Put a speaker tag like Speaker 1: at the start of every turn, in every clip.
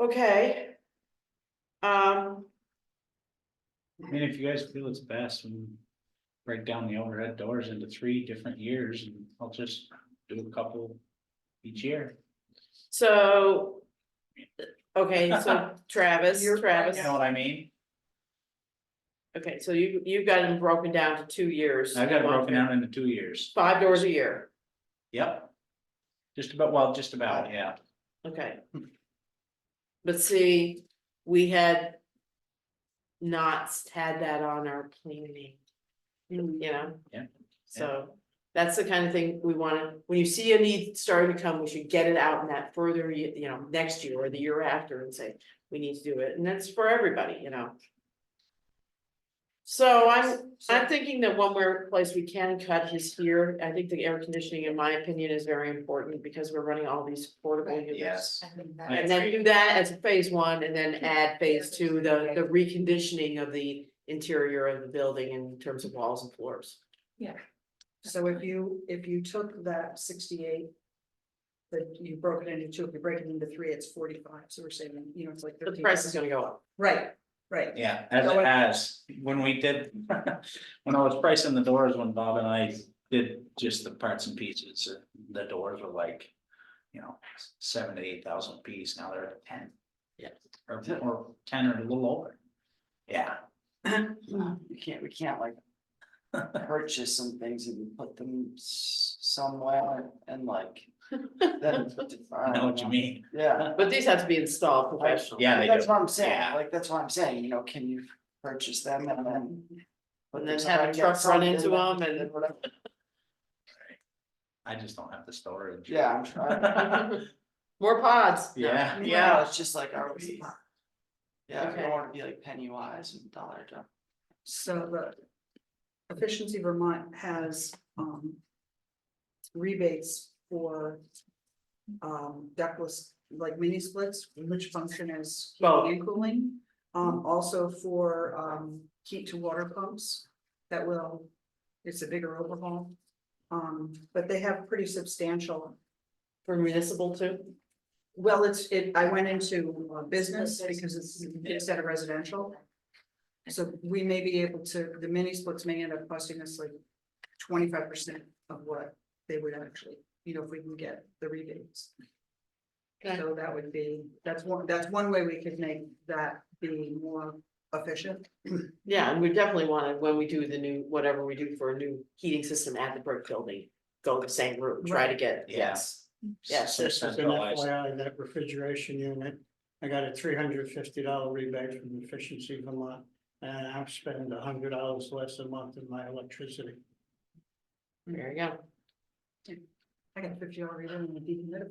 Speaker 1: Okay. Um,
Speaker 2: I mean, if you guys feel it's best, we break down the overhead doors into three different years and I'll just do a couple each year.
Speaker 1: so. Okay, so Travis,
Speaker 2: You're-
Speaker 1: Travis,
Speaker 2: You know what I mean?
Speaker 1: okay, so you, you've got them broken down to two years.
Speaker 2: I've got it broken down into two years.
Speaker 1: Five doors a year,
Speaker 2: Yep. Just about, well, just about, yeah.
Speaker 1: okay. But see, we had. Not had that on our planning. You know?
Speaker 2: Mm. Yeah, yeah.
Speaker 1: So, that's the kind of thing we wanna, when you see a need starting to come, we should get it out in that further, you, you know, next year or the year after and say. We need to do it, and that's for everybody, you know? So I'm, I'm thinking that one more place we can cut is here, I think the air conditioning, in my opinion, is very important, because we're running all these portable units.
Speaker 2: Yes. I
Speaker 1: And then do that as phase one and then add phase two, the, the reconditioning of the interior of the building in terms of walls and floors.
Speaker 3: So if you, if you took that sixty-eight. That you broke it into two, if you break it into three, it's forty-five, so we're saving, you know, it's like
Speaker 1: The
Speaker 3: thirteen.
Speaker 1: price is gonna go up.
Speaker 3: Right, right.
Speaker 2: Yeah, as
Speaker 3: So
Speaker 2: it
Speaker 3: what-
Speaker 2: has, when we did, when I was pricing the doors, when Bob and I did just the parts and pieces, uh, the doors were like. You know, seven to eight thousand piece, now they're at ten.
Speaker 1: Yeah.
Speaker 2: Or, or ten or a little over. Yeah,
Speaker 1: Uh-huh.
Speaker 4: We can't, we can't like purchase some things and put them s- somewhere and like. then
Speaker 2: I know
Speaker 4: Uh,
Speaker 2: what you mean,
Speaker 4: Yeah.
Speaker 1: But these have to be installed professionally.
Speaker 2: Yeah, they
Speaker 4: That's
Speaker 2: do.
Speaker 4: what I'm saying,
Speaker 2: Yeah.
Speaker 4: like, that's what I'm saying, you know, can you purchase them and then. put
Speaker 1: And then
Speaker 4: somewhere
Speaker 1: have a
Speaker 4: and get
Speaker 1: truck run
Speaker 4: something
Speaker 1: into 'em and-
Speaker 4: then whatever.
Speaker 2: I just don't have the storage.
Speaker 4: Yeah, I'm trying.
Speaker 1: More pods. No.
Speaker 2: Yeah,
Speaker 4: Yeah, it's just like, are we? Yeah, I
Speaker 1: Okay.
Speaker 4: don't wanna be like penny wise and dollar dumb.
Speaker 3: So the. Efficiency Vermont has, um. Rebates for. Um, ductless, like mini splits, which function as
Speaker 1: Well-
Speaker 3: heating and cooling. Um, also for, um, heat to water pumps that will, it's a bigger overhaul. Um, but they have pretty substantial
Speaker 1: For municipal too.
Speaker 3: well, it's, it, I went into uh, business because it's instead of residential. So we may be able to, the mini splits may end up costing us like twenty-five percent of what they would actually, you know, if we can get the rebates.
Speaker 1: Okay.
Speaker 3: So that would be, that's one, that's one way we could make that be more efficient.
Speaker 1: Yeah, and we definitely wanna, when we do the new, whatever we do for a new heating system at the brick building, go the same route, try to get,
Speaker 2: Yeah.
Speaker 1: yes. Yes,
Speaker 2: Some
Speaker 5: Just as an
Speaker 2: centralized.
Speaker 5: FYI, that refrigeration unit, I got a three hundred fifty dollar rebate from Efficiency Vermont. And I'm spending hundred dollars less a month in my electricity.
Speaker 1: There you go.
Speaker 3: I got fifty dollar rebate on the dehumidifier.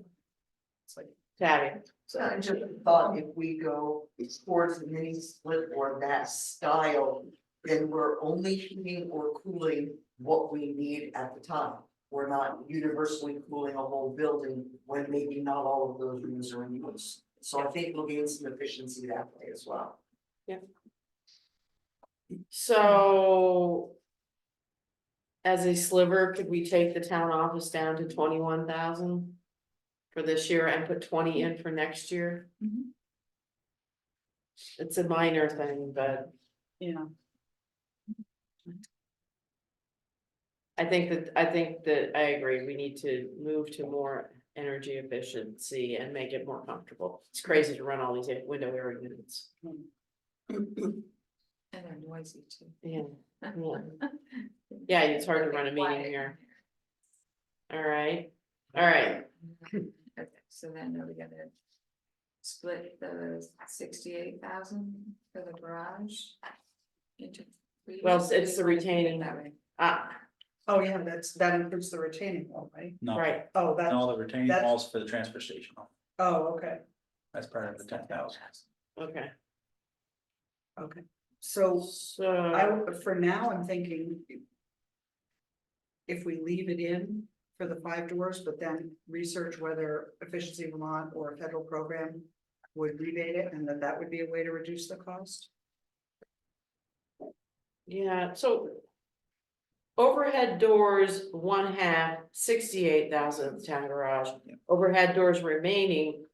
Speaker 3: It's like,
Speaker 1: Tabby,
Speaker 6: So I just thought if we go towards the mini split or that style, then we're only heating or cooling what we need at the time. We're not universally cooling a whole building when maybe not all of those rooms are in use. So I think we'll gain some efficiency that way as well.
Speaker 1: so. As a sliver, could we take the town office down to twenty-one thousand? For this year and put twenty in for next year?
Speaker 3: Mhm.
Speaker 1: It's a minor thing, but.
Speaker 3: you know,
Speaker 1: I think that, I think that I agree, we need to move to more energy efficiency and make it more comfortable. It's crazy to run all these window air units.
Speaker 7: And they're noisy too.
Speaker 1: Yeah, yeah. yeah, it's hard to run a meeting here. All right, all right,
Speaker 7: Okay, so then are we gonna split the sixty-eight thousand for the garage? into three
Speaker 1: Well,
Speaker 7: years?
Speaker 1: it's the retaining.
Speaker 7: That way.
Speaker 1: ah,
Speaker 3: oh yeah, that's, that includes the retaining wall, right?
Speaker 2: No,
Speaker 1: right,
Speaker 3: Oh,
Speaker 2: and
Speaker 3: that,
Speaker 2: all the retaining
Speaker 3: That's-
Speaker 2: walls for the transfer station,
Speaker 3: oh, okay,
Speaker 2: that's part of the ten thousand.
Speaker 1: okay,
Speaker 3: okay. So I,
Speaker 1: so,
Speaker 3: w- for now, I'm thinking. If we leave it in for the five doors, but then research whether efficiency Vermont or a federal program. Would rebate it and that that would be a way to reduce the cost.
Speaker 1: yeah, so. Overhead doors, one half, sixty-eight thousand town garage, overhead doors remaining,